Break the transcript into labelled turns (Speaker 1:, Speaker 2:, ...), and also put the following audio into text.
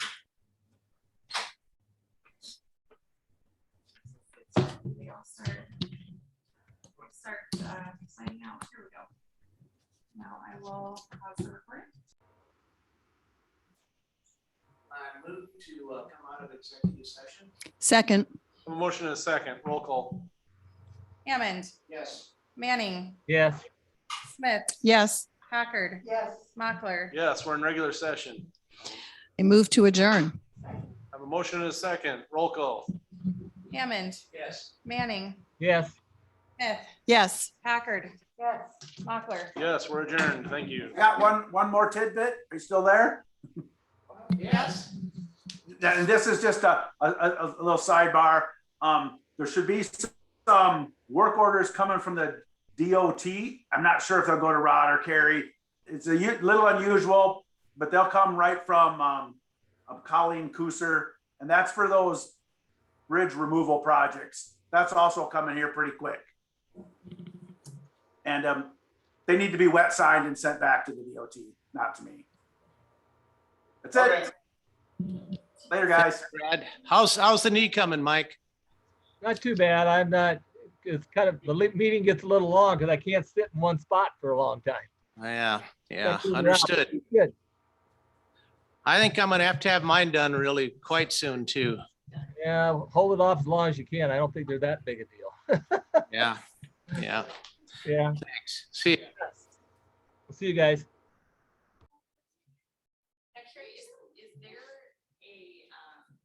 Speaker 1: I'll start. Start, uh, signing out. Here we go. Now I will pause the recording.
Speaker 2: I move to uh, come out of executive session.
Speaker 3: Second,
Speaker 4: A motion and a second, roll call.
Speaker 5: Hammond,
Speaker 2: Yes.
Speaker 5: Manning,
Speaker 6: Yes,
Speaker 5: Smith,
Speaker 3: yes,
Speaker 5: Packard,
Speaker 1: Yes.
Speaker 5: Mochler.
Speaker 4: Yes, we're in regular session.
Speaker 3: I move to adjourn.
Speaker 4: I Have a motion and a second, roll call.
Speaker 5: Hammond,
Speaker 2: Yes.
Speaker 5: Manning,
Speaker 6: yes.
Speaker 5: Smith,
Speaker 3: Yes.
Speaker 5: Packard,
Speaker 1: Yes.
Speaker 5: Mochler.
Speaker 4: Yes, we're adjourned, thank you.
Speaker 7: I got one, one more tidbit. Are you still there?
Speaker 2: Yes.
Speaker 7: Th- And this is just a, a, a- a little sidebar. Um, there should be some work orders coming from the DOT. I'm not sure if they'll go to Rod or Kerry. It's a u- little unusual, but they'll come right from, um, of Colleen Cooser. And that's for those bridge removal projects. That's also coming here pretty quick. And, um, they need to be wet signed and sent back to the DOT, not to me. That's
Speaker 2: Okay.
Speaker 7: it. Later, guys.
Speaker 8: Brad, how's, how's the knee coming, Mike?
Speaker 6: Not too bad. I'm not, it's kind of, the li- meeting gets a little long because I can't sit in one spot for a long time.
Speaker 8: Yeah, yeah,
Speaker 6: Thank you, Rob.
Speaker 8: understood.
Speaker 6: Good.
Speaker 8: I think I'm gonna have to have mine done really quite soon too.
Speaker 6: Yeah, hold it off as long as you can. I don't think they're that big a deal.
Speaker 8: Yeah, yeah,
Speaker 6: Yeah,
Speaker 8: thanks. See ya.
Speaker 6: see you guys.